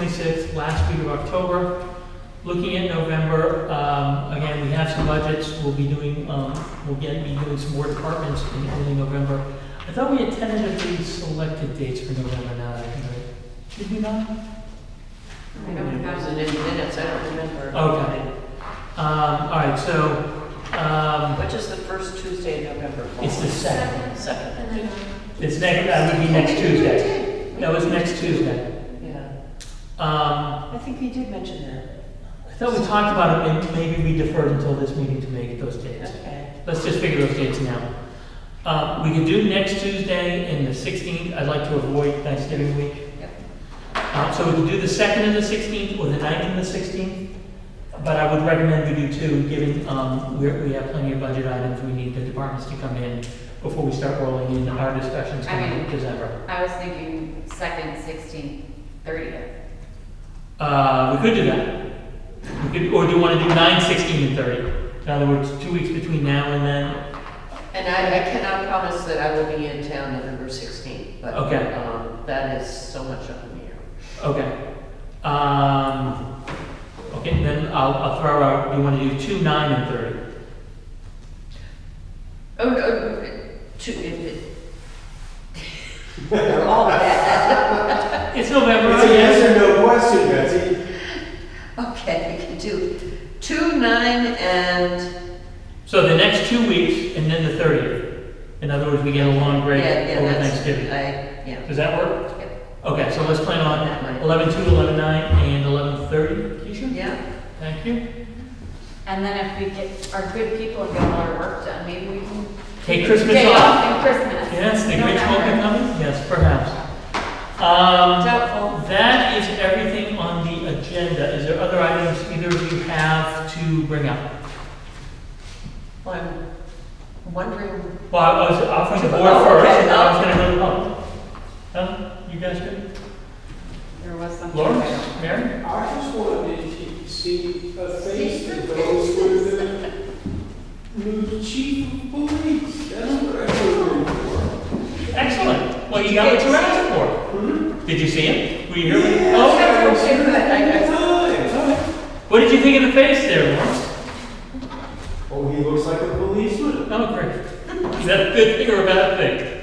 26th, last week of October. Looking at November, um, again, we have some budgets, we'll be doing, um, we'll get, be doing some more departments in early November. I thought we had tentatively selected dates for November now, that I Um, can, do it. did we not? I don't have it in minutes, I don't remember. Okay. Um, all right, so, um, Which is the first Tuesday in November? Paul? it's the second. Second. And then, It's next, that would be next Tuesday. That was next Tuesday. Yeah, Um, I think you did mention that. I thought we talked about it, and maybe we deferred until this meeting to make those dates. Okay. Let's just figure those dates now. Uh, we could do next Tuesday and the 16th. I'd like to avoid Thanksgiving week. Yep. Uh, so we could do the 2nd and the 16th, or the 9th and the 16th. But I would recommend we do two, given, um, we're, we have plenty of budget items. We need the departments to come in before we start rolling in our discussions I mean- in December. I was thinking second, sixteenth, thirtieth. Uh, we could do that. We could, or do you want to do 9, 16, and 30? In other words, two weeks between now and then, And I, I cannot promise that I will be in town November 16th, but Okay. um, that is so much up in the air. Okay. Um, okay, then I'll, I'll throw out, you want to do two, nine, and 30? Oh, no, uh, two, it, it. They're all bad. It's November, It's a yes. yes or no question, Betsy. Okay, we can do two, nine, and, So the next two weeks and then the 30th. In other words, we get a long yeah, break yeah, over that's, I, Thanksgiving. yeah. Does that work? Yep. Okay, so let's plan on That might- 11, 2, 11, 9, and 11, 30. Keisha? Yeah, Thank you. And then if we get our good people and get all our work done, maybe we can. Take Christmas Day off. off and Christmas. Yes, the Grinch will be November. coming? Yes, perhaps. Um, Doubtful. That is everything on the agenda. Is there other items either of you have to bring up? well, I'm wondering, Well, I was offering the board Oh, okay. first, and then I was gonna go to the public. Oh. Huh? You guys good? There was something. Lawrence, Mary? I just wanted to see a face that goes with the new chief of police. That's what I was looking for. Excellent. Well, you got what you asked for. Hmm? Did you see him? Were you here? Yes, Oh, I was here at the time. what did you think of the face there, Lawrence? Oh, he looks like a policeman. Oh, great. Is that a good thing or a bad thing?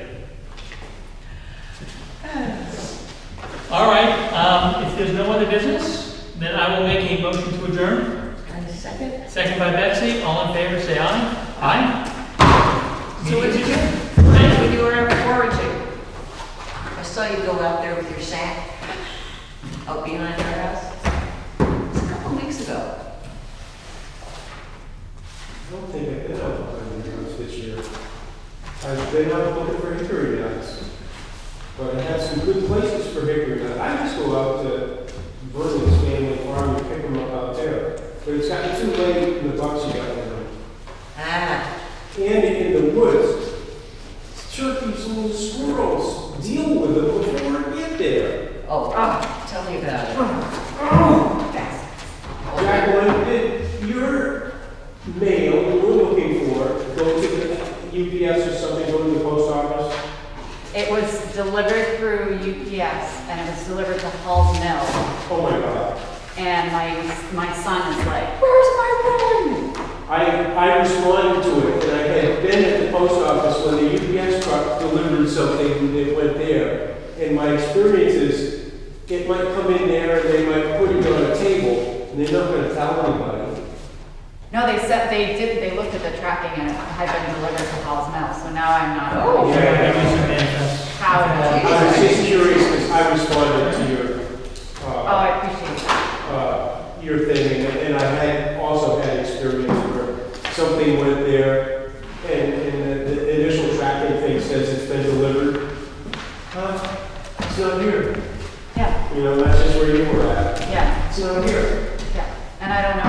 All right, um, if there's no other business, then I will make a motion to adjourn. kind of second? Second by Betsy. All in favor, say aye. Aye. So what did you do? Thank you. What you were foraging? I saw you go out there with your sack out behind our house. It's a couple weeks ago. I don't think I've been out on the roads this year. I've been out looking for hickory nuts. But I have some good places for hickory nuts. I just go out to Vernon's family farm and pick them up out there. But it's gotten too late in the bucks you got in them. Ah, And in the woods, turkeys and little squirrels deal with them before we get there. oh, ah, tell me about it. Oh, Jacqueline, did your mail you were looking for go to the UPS or something, go to the post office? It was delivered through UPS and it was delivered to Hall's Mill. Oh my God. And my, my son is like, where's my phone? I, I responded to it, and I had been at the post office when the UPS truck delivered something, and it went there. And my experience is, it might come in there, and they might put it on a table, and they're not gonna tell anybody. No, they said, they did, they looked at the tracking and it had been delivered to Hall's Mill, so now I'm not. Oh. Yeah, I got you some manifest. How it I was just curious, because I responded to your, Oh, uh, I appreciate that. uh, your thing, and- and I had also had experience where something went there, and, and the- the initial tracking thing says it's been delivered. Huh? It's not here. Yeah, You know, that's just where you were at. yeah, It's not here. yeah. And I don't know